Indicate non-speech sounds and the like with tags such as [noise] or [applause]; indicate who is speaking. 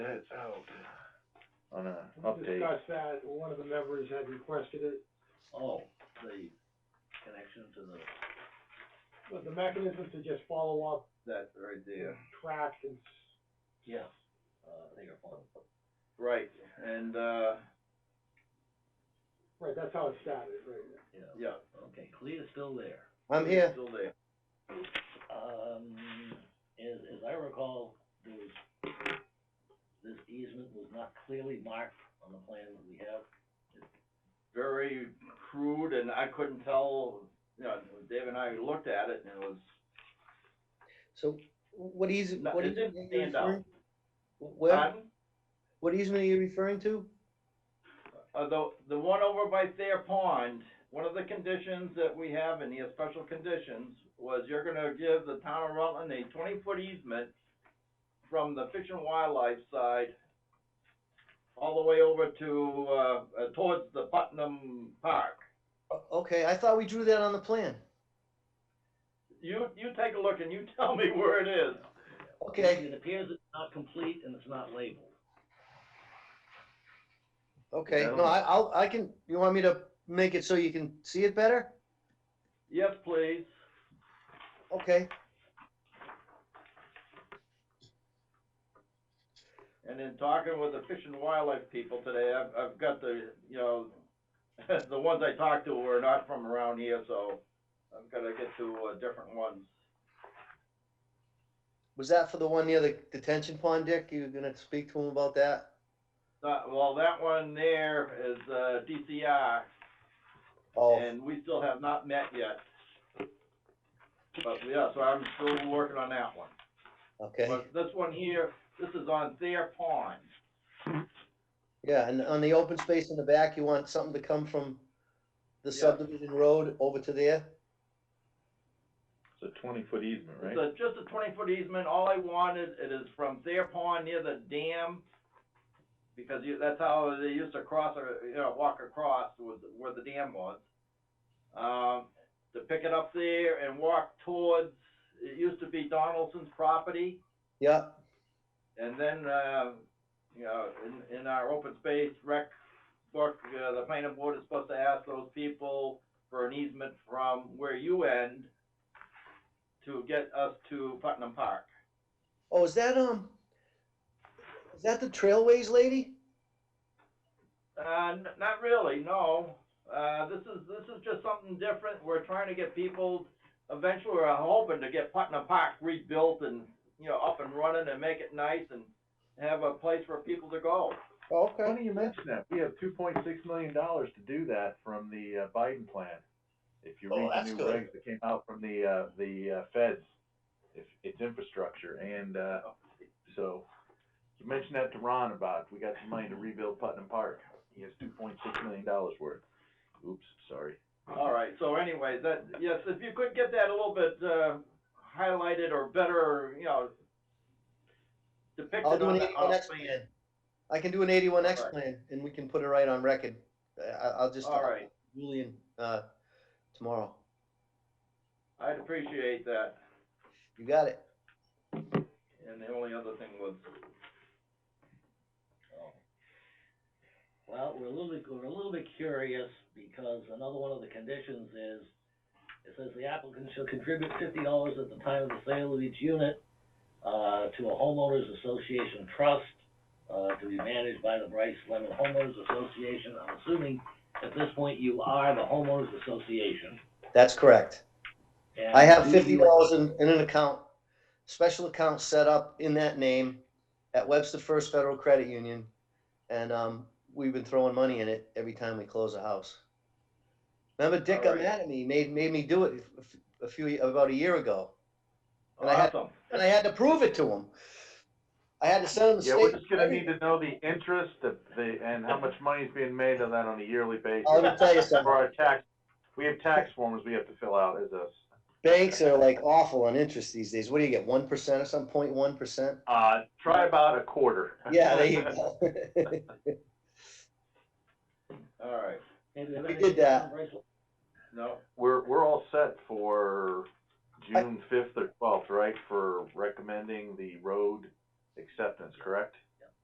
Speaker 1: minutes
Speaker 2: Oh,
Speaker 1: out on a
Speaker 2: We
Speaker 1: update.
Speaker 2: discussed that, and one of the members had requested it,
Speaker 3: Oh, the connection to the,
Speaker 2: but the mechanism to just follow up,
Speaker 3: that right there.
Speaker 2: track and s-
Speaker 3: Yeah. Uh, I think I found it.
Speaker 1: Right, and, uh,
Speaker 2: right, that's how it started, right?
Speaker 3: Yeah,
Speaker 1: yeah,
Speaker 3: okay, Clea's still there.
Speaker 4: I'm here.
Speaker 1: still there.
Speaker 3: Um, as, as I recall, there was, this easement was not clearly marked on the plan that we have.
Speaker 1: Very crude, and I couldn't tell, you know, Dave and I looked at it, and it was,
Speaker 4: So what easement,
Speaker 1: No,
Speaker 4: what
Speaker 1: it
Speaker 4: easement
Speaker 1: didn't
Speaker 4: are you
Speaker 1: stand out.
Speaker 4: referring? Where,
Speaker 1: pardon?
Speaker 4: what easement are you referring to?
Speaker 1: Uh, the, the one over by Thayer Pond, one of the conditions that we have in the special conditions was you're gonna give the town of Rutland a twenty-foot easement from the Fish and Wildlife side all the way over to, uh, uh, towards the Putnam Park.
Speaker 4: O- Okay, I thought we drew that on the plan.
Speaker 1: You, you take a look and you [laughs] tell me where it is.
Speaker 4: Okay,
Speaker 3: It appears it's not complete and it's not labeled.
Speaker 4: okay,
Speaker 1: Yeah, I
Speaker 4: no,
Speaker 1: don't-
Speaker 4: I, I'll, I can, you want me to make it so you can see it better?
Speaker 1: Yes, please.
Speaker 4: Okay,
Speaker 1: And in talking with the Fish and Wildlife people today, I've, I've got the, you know, [laughs] the ones I talked to were not from around here, so I've gotta get to, uh, different ones.
Speaker 4: was that for the one near the detention pond, Dick? You were gonna speak to him about that?
Speaker 1: Uh, well, that one there is, uh, DCR,
Speaker 4: Oh,
Speaker 1: and we still have not met yet. But, yeah, so I'm still working on that one.
Speaker 4: okay,
Speaker 1: But this one here, this is on Thayer Pond.
Speaker 4: yeah, and on the open space in the back, you want something to come from the
Speaker 1: Yeah.
Speaker 4: subdivision road over to there?
Speaker 5: It's a twenty foot easement,
Speaker 1: It's
Speaker 5: right?
Speaker 1: a, just a twenty foot easement, all I wanted, it is from Thayer Pond near the dam, because you, that's how they used to cross, or, you know, walk across was where the dam was. Um, to pick it up there and walk towards, it used to be Donaldson's property,
Speaker 4: Yeah,
Speaker 1: and then, uh, you know, in, in our open space rec book, uh, the planning board is supposed to ask those people for an easement from where you end to get us to Putnam Park.
Speaker 4: oh, is that, um, is that the trailways lady?
Speaker 1: Uh, n- not really, no. Uh, this is, this is just something different. We're trying to get people, eventually we're hoping to get Putnam Park rebuilt and, you know, up and running and make it nice and have a place for people to go.
Speaker 4: Okay.
Speaker 5: Funny you mention that, we have two point six million dollars to do that from the uh, Biden plan. If you
Speaker 4: Oh,
Speaker 5: read
Speaker 4: that's
Speaker 5: the new
Speaker 4: good.
Speaker 5: regs that came out from the, uh, the, uh, feds, if, it's infrastructure and, uh, so. You mentioned that to Ron about, we got some money to rebuild Putnam Park, he has two point six million dollars worth. Oops, sorry.
Speaker 1: All right, so anyway, that, yes, if you could get that a little bit, uh, highlighted or better, you know,
Speaker 4: I'll
Speaker 1: depicted
Speaker 4: do
Speaker 1: on
Speaker 4: an
Speaker 1: the, on
Speaker 4: eighty-one
Speaker 1: the
Speaker 4: X
Speaker 1: plan.
Speaker 4: plan. I can do an eighty-one X
Speaker 1: Alright.
Speaker 4: plan and we can put it right on record. I- I, I'll just.
Speaker 1: All right,
Speaker 4: Julian, uh, tomorrow.
Speaker 1: I'd appreciate that.
Speaker 4: You got it.
Speaker 1: And the only other thing was,
Speaker 3: Oh. Well, we're a little bit, we're a little bit curious, because another one of the conditions is, it says the applicant shall contribute fifty dollars at the time of the sale of each unit, uh, to a homeowners association trust, uh, to be managed by the Bryce Lemon Homeowners Association, I'm assuming at this point you are the homeowners association.
Speaker 4: That's correct.
Speaker 3: and
Speaker 4: I have
Speaker 3: do
Speaker 4: fifty
Speaker 3: you-
Speaker 4: dollars in, in an account, special account set up in that name at Webster First Federal Credit Union. And, um, we've been throwing money in it every time we close a house. Remember Dick got
Speaker 1: Alright.
Speaker 4: mad at me, made, made me do it a f- a few, about a year ago. And I had-
Speaker 1: awesome.
Speaker 4: And I had to prove it to him. I had to send him a
Speaker 5: Yeah,
Speaker 4: statement.
Speaker 5: we're just gonna need to know the interest, the, the, and how much money is being made on that on a yearly basis.
Speaker 4: Oh, Let me tell you something.
Speaker 5: For our tax, we have tax forms we have to fill out as a,
Speaker 4: Banks are like awful on interest these days. What do you get, one percent or some point one percent?
Speaker 5: uh, try about a quarter.
Speaker 4: Yeah, there [laughs] you go.
Speaker 1: All right,
Speaker 3: Hey, do you have
Speaker 4: We
Speaker 3: anything
Speaker 4: did that.
Speaker 3: on Bryce Lemon?
Speaker 1: no,
Speaker 5: [laughs] We're, we're all set for June fifth or twelfth, right, for recommending the road acceptance, correct?